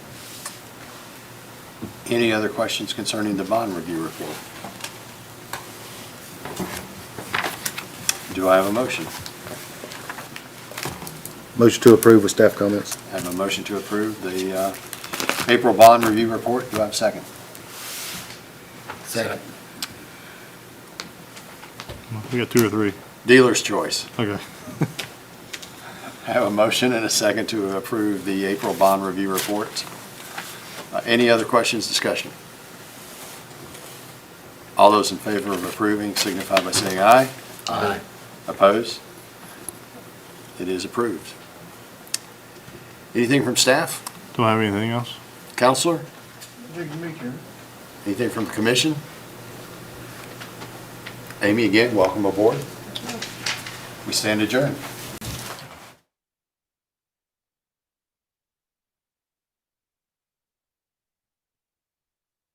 Any other questions concerning the bond review report? Do I have a motion? Motion to approve with staff comments. I have a motion to approve the uh, April bond review report. Do I have a second? Second. We got two or three. Dealer's choice. Okay. I have a motion and a second to approve the April bond review report. Uh, Any other questions, discussion? All those in favor of approving signify by saying aye. Aye. Opposed? It is approved. Anything from staff? Don't have anything else? Counselor? Good to meet you. Anything from the commission? Amy, again, welcome aboard. We stand adjourned.